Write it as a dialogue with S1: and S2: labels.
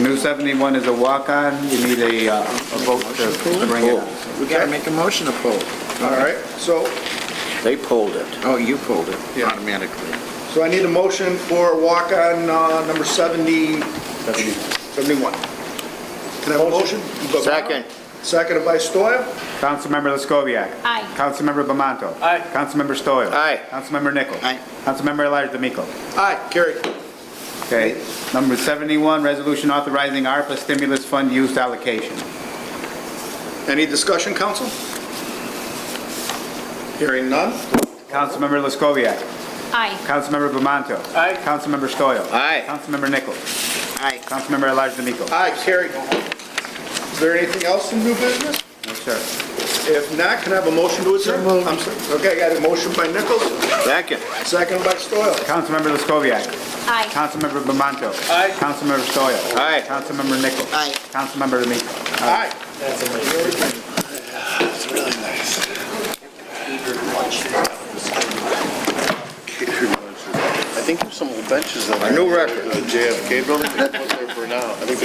S1: New 71 is a walk-on, you need a uh, a vote to bring it up.
S2: We gotta make a motion to pull.
S3: All right, so,
S2: They pulled it. Oh, you pulled it
S3: Yeah.
S2: automatically.
S3: so I need a motion for walk-on uh, number 70, 71. Can I have a motion?
S2: Second.
S3: Seconded by Stoyl.
S1: Councilmember Laskoviac.
S4: Aye.
S1: Councilmember Bamanto.
S2: Aye.
S1: Councilmember Stoyl.
S2: Aye.
S1: Councilmember Nichols.
S2: Aye.
S1: Councilmember Elijah D'Amico.
S3: Aye, carried.
S1: Okay. Number 71, resolution authorizing ARPA stimulus fund use allocation.
S3: Any discussion, council? Hearing none?
S1: Councilmember Laskoviac.
S4: Aye.
S1: Councilmember Bamanto.
S3: Aye.
S1: Councilmember Stoyl.
S2: Aye.
S1: Councilmember Nichols.
S2: Aye.
S1: Councilmember Elijah D'Amico.
S3: Aye, carried. Is there anything else in new business?
S1: Yes, sir.
S3: If not, can I have a motion to adjourn? I'm sorry. Okay, I got a motion by Nichols,
S2: Second.
S3: seconded by Stoyl.
S1: Councilmember Laskoviac.
S4: Aye.
S1: Councilmember Bamanto.
S3: Aye.
S1: Councilmember Stoyl.
S2: Aye.
S1: Councilmember Nichols.
S2: Aye.
S1: Councilmember D'Amico.
S3: Aye.
S5: I think there's some old benches that
S2: A new record.
S5: The JFK building, they put there for now. I think